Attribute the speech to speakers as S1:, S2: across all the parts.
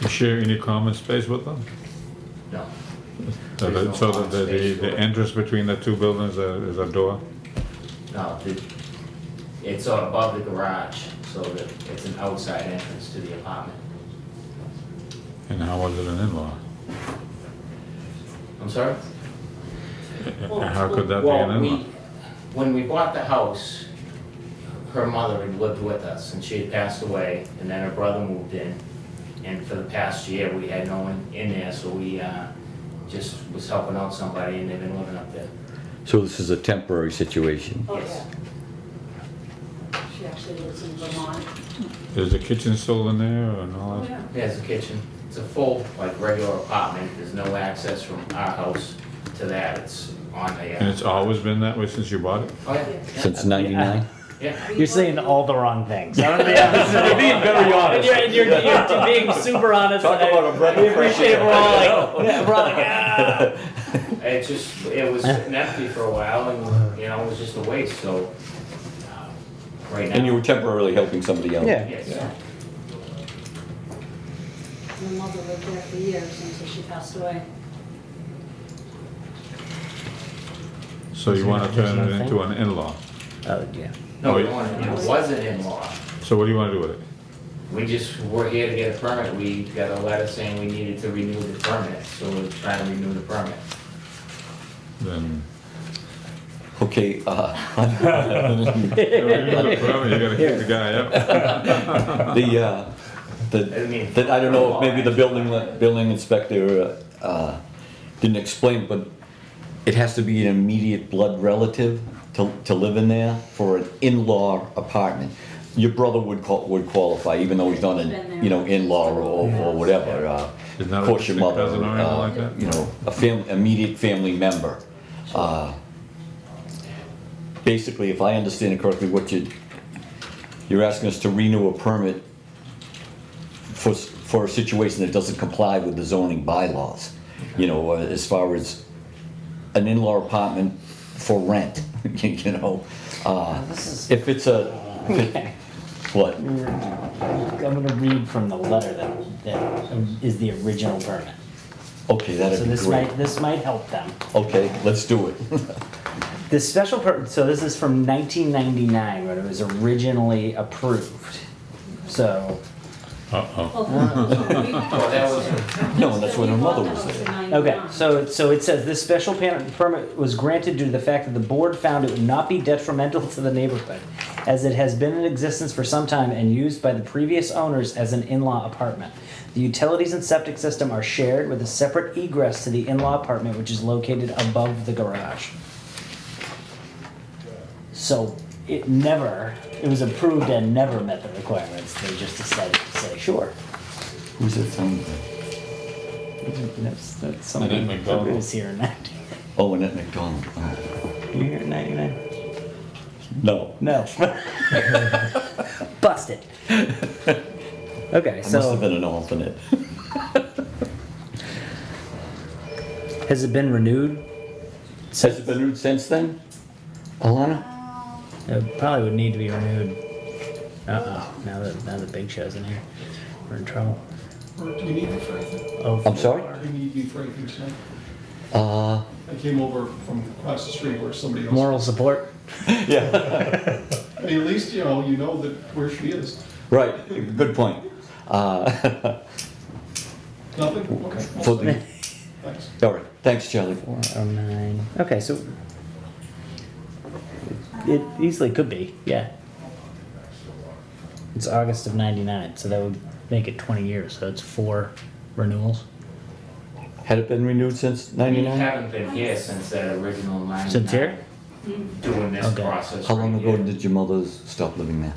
S1: You share any common space with them?
S2: No.
S1: So
S2: There's no
S1: that, so that the,
S2: common
S1: the,
S2: space for
S1: the
S2: it.
S1: entrance between the two buildings uh, is a door?
S2: No, the, it's above the garage, so that it's an outside entrance to the apartment.
S1: And how was it an in-law?
S2: I'm sorry?
S1: Uh, How could that be an
S2: Well, we,
S1: in-law?
S2: when we bought the house, her mother had lived with us, and she had passed away, and then her brother moved in. And for the past year, we had no one in there, so we, uh, just was helping out somebody, and they've been living up there.
S3: So this is a temporary situation.
S4: Oh,
S2: Yes.
S4: yeah. She actually lives in Vermont.
S1: Is the kitchen still in there or
S3: Oh,
S1: not?
S4: Oh, yeah.
S2: There's a kitchen. It's a full, like, regular apartment. There's no access from our house to that. It's on the,
S1: And
S2: uh,
S1: it's always been that way since you bought it?
S2: oh, yeah, yeah,
S3: Since ninety-nine?
S2: yeah.
S5: You're saying all the wrong things. I'm gonna be honest. You're being very honest. You're, you're- you're being super honest.
S3: Talk
S5: and I-
S3: about a breath of
S5: We appreciate
S3: fresh air.
S5: we're all like, yeah, we're all like, ah.
S2: It just, it was sitting empty for a while and, you know, it was just a waste, so, uh, right now.
S3: And you were temporarily helping somebody else?
S5: Yeah.
S2: Yes.
S4: My mother lived there for years until she passed away.
S1: So you wanna
S5: There's
S1: turn it
S5: nothing.
S1: into an in-law?
S5: Oh, yeah.
S2: No,
S1: Oh,
S2: we
S1: yeah.
S2: wanted, it wasn't in-law.
S1: So what do you wanna do with it?
S2: We just were here to get a permit. We got a letter saying we needed to renew the permit, so we're trying to renew the permit.
S1: Then,
S3: Okay, uh,
S1: you gotta kick the guy up.
S3: the, uh, the,
S2: I mean-
S3: that, I don't know if maybe the building, building inspector, uh, didn't explain, but it has to be an immediate blood relative to, to live in there for an in-law apartment. Your brother would qual, would qualify, even though he's not an, you know, in-law or, or whatever, uh,
S1: He's
S3: of
S1: not a
S3: course your
S1: distant
S3: mother,
S1: cousin or anything
S3: uh,
S1: like that?
S3: you know, a fam, immediate family member. Uh, Basically, if I understand it correctly, what you, you're asking us to renew a permit for, s- for a situation that doesn't comply with the zoning bylaws. You know, uh, as far as an in-law apartment for rent, you know? Uh, If it's a, if it- what?
S5: I'm gonna read from the letter that, that is the original permit.
S3: Okay,
S5: So
S3: that'd be
S5: this
S3: great.
S5: might, this might help them.
S3: Okay, let's do it.
S5: The special per, so this is from nineteen ninety-nine when it was originally approved. So,
S1: Uh-oh.
S2: Well, that was,
S3: Oh. No, Oh, that's when her mother was there.
S5: Okay, so, so it says this special pan- permit was granted due to the fact that the board found it would not be detrimental to the neighborhood, as it has been in existence for some time and used by the previous owners as an in-law apartment. The utilities and septic system are shared with a separate egress to the in-law apartment, which is located above the garage. So it never, it was approved and never met the requirements, they just decided to say, sure.
S3: Who's that sound?
S5: That's, that's something
S1: didn't make that
S5: that
S1: rule.
S5: was here in ninety,
S3: Oh, Annette McDonald. Oh.
S5: you here in ninety-nine?
S3: No.
S5: No. Busted. Okay,
S3: I must have
S5: so
S3: been an alternate.
S5: has it been renewed?
S3: Has it been renewed since then? Alana?
S5: It probably would need to be renewed. Uh-oh, now that, now that Big Show's in here, we're in trouble.
S6: Uh, Do you need me for anything?
S5: Oh,
S3: I'm sorry?
S6: Do you need me for anything tonight?
S3: Uh,
S6: I came over from across the street where somebody else.
S5: Moral support?
S3: yeah,
S6: I mean, at least, you know, you know that where she is.
S3: right, good point. Uh,
S6: Nothing? Okay. I'll
S3: So
S6: stay.
S3: the-
S6: Thanks.
S3: all right, thanks, Charlie.
S5: Four oh nine. Okay, so it easily could be, yeah. It's August of ninety-nine, so that would make it twenty years, so it's four renewals
S3: Had it been renewed since
S2: we
S3: ninety-nine?
S2: haven't been here since that original line. uh,
S5: since here?
S2: Doing this
S5: Okay.
S2: process.
S3: How long
S2: right
S3: ago
S2: here.
S3: did your mother stop living there?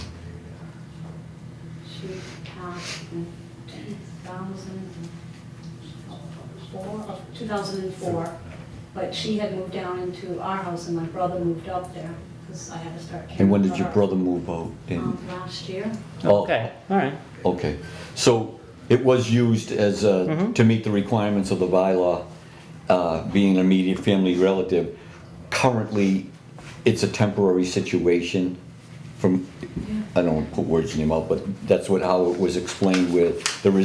S4: She passed in 2004, 2004, but she had moved down into our house and my brother moved up there because I had to start caring
S3: And when did
S4: for
S3: your
S4: her.
S3: brother move out?
S4: Um,
S3: And-
S4: Last year.
S3: Oh,
S5: Okay, alright.
S3: Okay, so it was used as, uh, to meet the requirements of the bylaw, uh, being an immediate family relative. Currently, it's a temporary situation from, I don't want to put words in your mouth, but that's what, how it was explained with the